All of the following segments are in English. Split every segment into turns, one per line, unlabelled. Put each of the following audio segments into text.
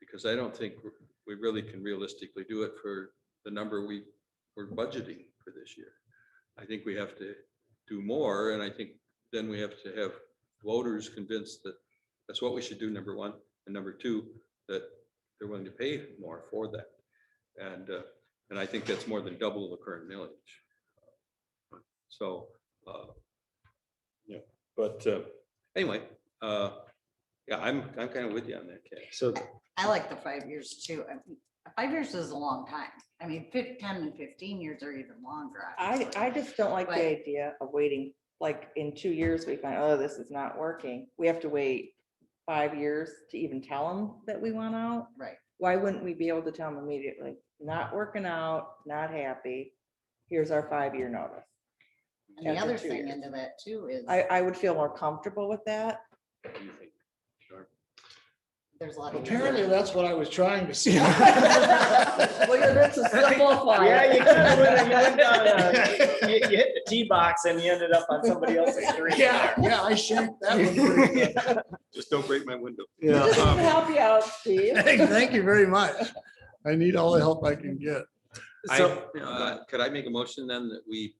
because I don't think we really can realistically do it for the number we were budgeting for this year. I think we have to do more, and I think then we have to have voters convinced that that's what we should do, number one, and number two, that they're willing to pay more for that. And, uh, and I think that's more than double the current millage. So, uh, yeah, but uh, anyway, uh, yeah, I'm, I'm kind of with you on that, Ken.
So
I like the five years too. I mean, Five years is a long time. I mean, fif- ten and fifteen years are even longer.
I,
obviously.
I just don't like
But-
the idea of waiting, like in two years, we find, oh, this is not working. We have to wait five years to even tell them that we want out.
Right.
Why wouldn't we be able to tell them immediately, not working out, not happy, here's our five-year notice?
And the
After
other
two
thing
years.
into that too is
I, I would feel more comfortable with that.
What do you think? Sure.
there's a lot of.
apparently that's what I was trying to see.
that's a simplifier.
Yeah, you kinda went- you went down a- You you hit the tee box and you ended up on somebody else's green.
Yeah, yeah, I shaped that one pretty good.
Just don't break my window. Um,
Yeah.
Just to help you out, Steve.
Hey, Thank you very much. I need all the help I can get.
I,
So,
uh, could I make a motion then that we,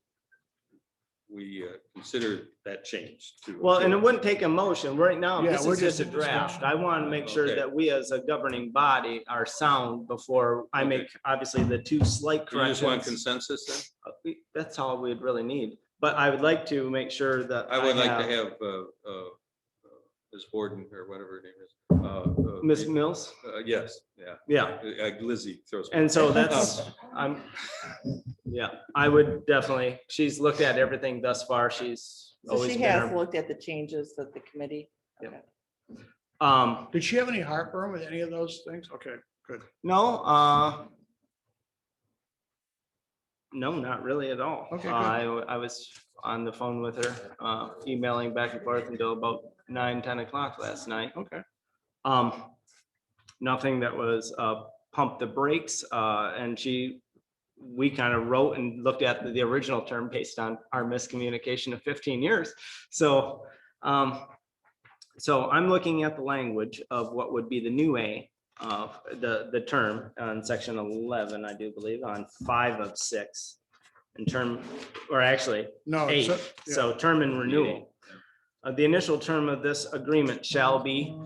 we uh, consider that change to?
well, and it wouldn't take a motion. Right now,
Yeah,
this
we're
is just a
just in
draft.
discussion.
I want to make sure
Okay.
that we as a governing body are sound before I make, obviously, the two slight
You just want
corrections.
consensus then?
Uh, we- That's all we'd really need. But I would like to make sure that.
I would like
have-
to have, uh, uh, Ms. Borden or whatever her name is. uh, uh,
Ms. Mills,
uh, Yes, yeah,
yeah.
Uh, Lizzie throws. Um,
And so that's,
Oh.
I'm, yeah, I would definitely, she's looked at everything thus far. She's
So
always
she
been.
has
our-
looked at the changes that the committee.
Yep. Um,
Did she have any heartburn with any of those things? Okay, good.
no, uh. No, not really at all.
Okay, good.
Uh, I, w- I was on the phone with her, uh, emailing back and forth until about nine, ten o'clock last night.
Okay.
Um, nothing that was, uh, pump the brakes, uh, and she, we kind of wrote and looked at the, the original term based on our miscommunication of fifteen years. So, um, so I'm looking at the language of what would be the new A of the, the term on section eleven, I do believe, on five of six. In term, or actually,
No,
Eight,
Oh, so- yeah.
so term and renewal. Uh, The initial term of this agreement shall be,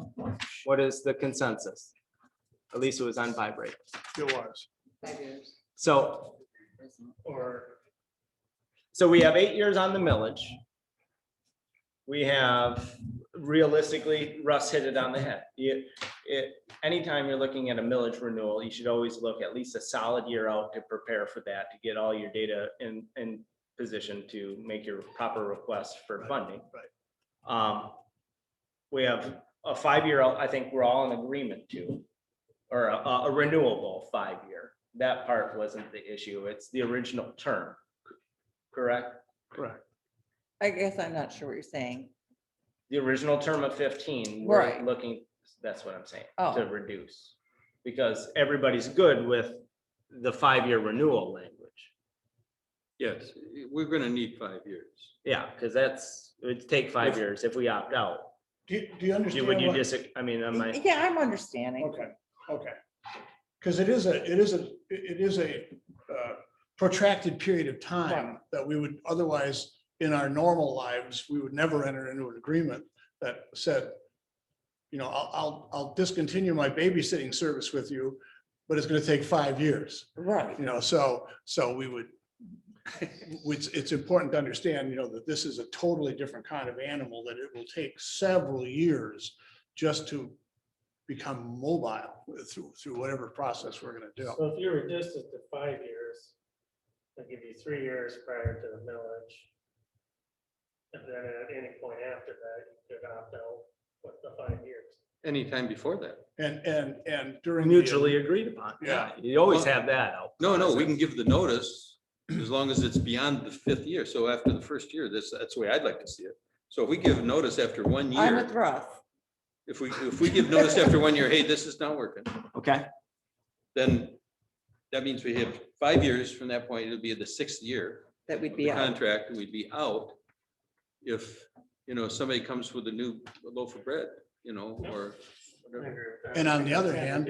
what is the consensus? At least it was on vibrate.
it was.
Five years,
So,
isn't it?
Or,
so we have eight years on the millage. We have realistically, Russ hit it on the head. You, it, anytime you're looking at a millage renewal, you should always look at least a solid year out to prepare for that, to get all your data in, in position to make your proper request for funding.
Right.
Um, we have a five-year, I think we're all in agreement to, or a, a renewable five-year. That part wasn't the issue. It's the original term, correct?
correct.
I guess I'm not sure what you're saying.
The original term of fifteen, we're
Right.
looking, that's what I'm saying,
Oh.
to reduce. Because everybody's good with the five-year renewal language.
Yes, we're going to need five years.
Yeah, because that's, it'd take five years if we opt out.
Do you, do you
You-
understand?
Would you
what-
just, I mean, am I?
Yeah, I'm understanding.
Okay, okay. Because it is a, it is a, it is a uh, protracted period of time that we would otherwise, in our normal lives, we would never enter into an agreement that said, you know, I'll, I'll, I'll discontinue my babysitting service with you, but it's going to take five years,
Right.
you know, so, so we would, it's, it's important to understand, you know, that this is a totally different kind of animal, that it will take several years just to become mobile through, through whatever process we're going to do.
So if you reduce it to five years, they give you three years prior to the millage. And then at any point after that, you could opt out with the five years.
Anytime before that.
And, and, and during. the-
Mutually agreed upon.
Yeah.
You always have that out.
No, no, we can give the notice as long as it's beyond the fifth year. So after the first year, that's, that's the way I'd like to see it. So if we give notice after one
I'm with
year,
Russ.
if we, if we give notice after one year, hey, this is not working,
Okay.
then that means we have five years from that point, it'll be the sixth year.
That
of
we'd
the
be out.
Contract, and we'd be out. If, you know, somebody comes with a new loaf of bread, you know, or
I
whatever.
agree with that.
And on the other hand,